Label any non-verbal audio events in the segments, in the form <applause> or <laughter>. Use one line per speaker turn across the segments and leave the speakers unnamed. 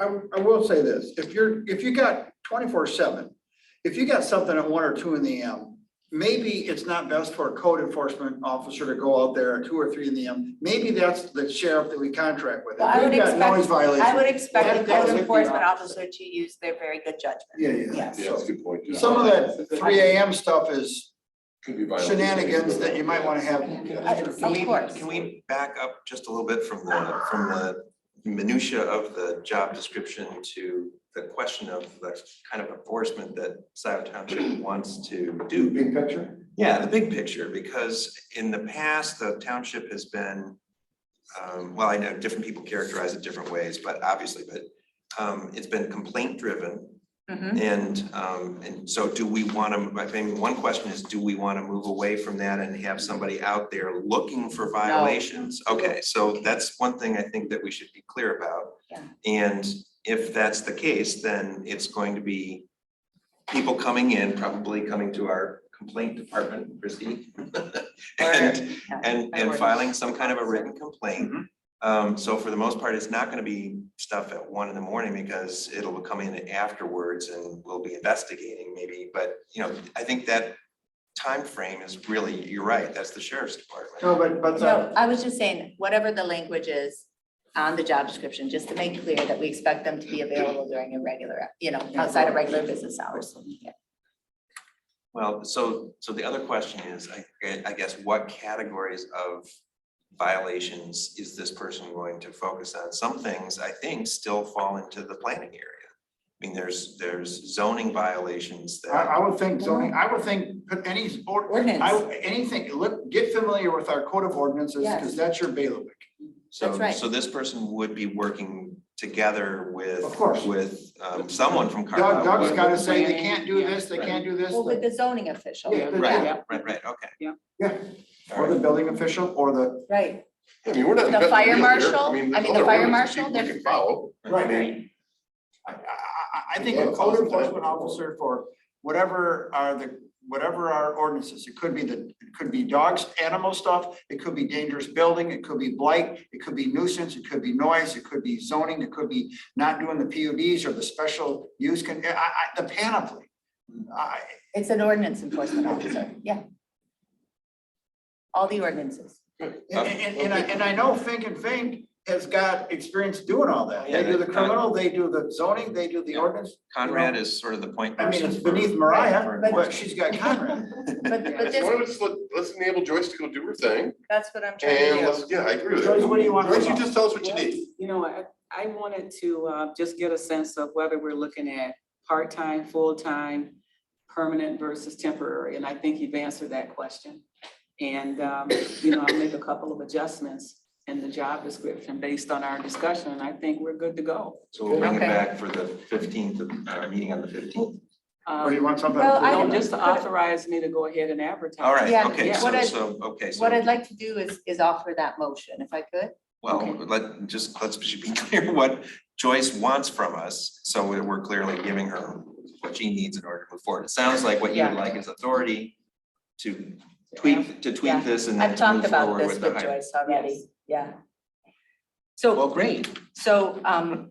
I, I will say this, if you're, if you got twenty-four seven, if you got something at one or two in the M, maybe it's not best for a code enforcement officer to go out there at two or three in the M. Maybe that's the sheriff that we contract with. If
I would
we've got
expect-
Noise
I
violation.
would expect the
That- that
code
would be
enforcement
opposite.
officer to use their very good judgment.
Yeah, yeah.
Yes.
Yeah, that's a good point. yeah.
Some of that three AM stuff is
Could be violent.
shenanigans that you might wanna have.
Yeah.
Of
Can we,
course.
can we back up just a little bit from the, from the minutia of the job description to the question of the kind of enforcement that Scioto Township wants to do?
Big picture?
Yeah, the big picture, because in the past, the township has been, um, well, I know different people characterize it different ways, but obviously, but um, it's been complaint driven.
Mhm.
And um, and so do we want to, I think one question is, do we want to move away from that and have somebody out there looking for violations? Okay, so that's one thing I think that we should be clear about.
Yeah.
And if that's the case, then it's going to be people coming in, probably coming to our complaint department, Christie. <laughs> And
yeah,
and
by
and
ordinance.
filing some kind of a written complaint.
Mm-hmm.
Um, so for the most part, it's not gonna be stuff at one in the morning because it'll come in afterwards and we'll be investigating maybe, but you know, I think that time frame is really, you're right, that's the sheriff's
No,
department.
Oh.
but, but, uh,
No,
the-
I was just saying, whatever the language is on the job description, just to make clear that we expect them to be available during a regular, you know, outside of regular business hours. Yeah.
Well, so so the other question is, I I guess, what categories of violations is this person going to focus on? Some things, I think, still fall into the planning area. I mean, there's there's zoning violations that.
I, I would think zoning, I would think, put any sport, I,
Ordinance,
anything, look, get familiar with our code of ordinances, because
Yes.
that's your bailiwick.
That's
So,
right.
so this person would be working together with.
Of course.
With um, someone from
Doug,
Carlisle.
Doug's
What-
gotta say, they can't do this, they can't do this,
well, with the zoning
Oh,
official,
Yeah, the-
yeah,
Right, right, right, okay.
yeah,
All
or the
right.
building official, or the,
right,
I mean, we're not.
The
inventing
fire
the wheel here.
marshal? I
there's
mean, the
other
fire marshal,
ordinances people
there's-
can Follow.
right,
I mean,
I, I, I, I think a code enforcement officer for whatever are the, whatever our ordinances, it could be the, it could be dogs, animal stuff, it could be dangerous building, it could be blight, it could be nuisance, it could be noise, it could be zoning, it could be not doing the PUDs or the special use can, I, I, the panoply. I,
it's an ordinance enforcement officer, yeah. All the ordinances.
And, and, and I, and I know Fink and Fink has got experience doing all that. They do the criminal, they do the zoning, they do the ordinance.
Conrad is sort of the point
I mean,
person.
it's
for-
beneath
for
Mariah, but
enforcement.
she's got Conrad.
But, but
Why
this,
don't we just let, let's enable Joyce to go do her thing
that's what I'm trying
and
to do.
let's, yeah, I agree with
Joyce,
that.
what do you want?
Joyce, you just tell us what you need.
You know, I, I wanted to, uh, just get a sense of whether we're looking at part-time, full-time, permanent versus temporary, and I think you've answered that question. And, um, you know, I'll make a couple of adjustments in the job description based on our discussion, and I think we're good to go.
So we'll bring it
Okay.
back for the fifteenth, uh, meeting on the fifteenth.
Um,
Or you want something?
Well, I-
No, just to authorize me to go ahead and advertise.
All right,
Yeah,
okay,
yeah.
What
so,
I-
so, okay,
What I'd
so,
like to do is, is offer that motion, if I could.
well,
Okay.
let, just, let's be <laughs> clear what Joyce wants from us. So we're we're clearly giving her what she needs in order to move forward. It sounds like what you would
Yeah.
like is authority to tweak, to
Yeah.
tweak this and then
I've
to
talked
move
about
forward
this
with the
with
hire.
Joyce already, yeah. So,
Well, great.
so, um,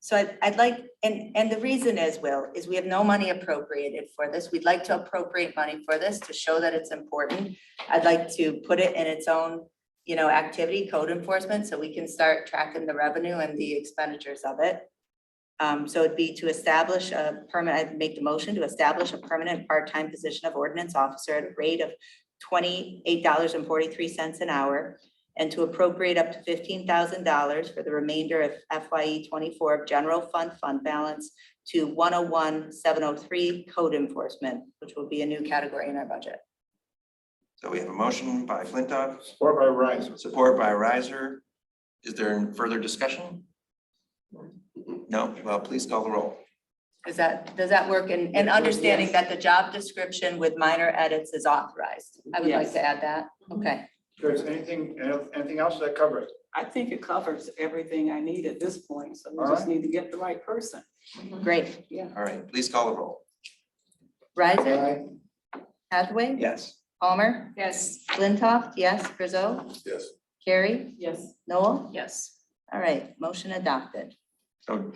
so I'd, I'd like, and, and the reason is, Will, is we have no money appropriated for this. We'd like to appropriate money for this to show that it's important. I'd like to put it in its own, you know, activity, code enforcement, so we can start tracking the revenue and the expenditures of it. Um, so it'd be to establish a permanent, I'd make the motion to establish a permanent part-time position of ordinance officer at a rate of twenty-eight dollars and forty-three cents an hour and to appropriate up to fifteen thousand dollars for the remainder of FYE twenty-four of general fund fund balance to one oh one, seven oh three code enforcement, which will be a new category in our budget.
So we have a motion by Flintoff,
Or by Rise.
support by Riser. Is there further discussion? No, well, please call the roll.
Is that, does that work? And, and understanding that the job description with minor edits is authorized. I would like
Yes.
to add that. Okay.
Joyce, anything, anything else that covers?
I think it covers everything I need at this point, so we
All
just need to get the right person.
Great.
All right, please call the roll.
Riser, Hathaway?
Yes.
Palmer?
Yes.
Flintoff, yes. Grizzo?
Yes.
Carrie?
Yes.
Noel?
Yes.
All right, motion adopted.
So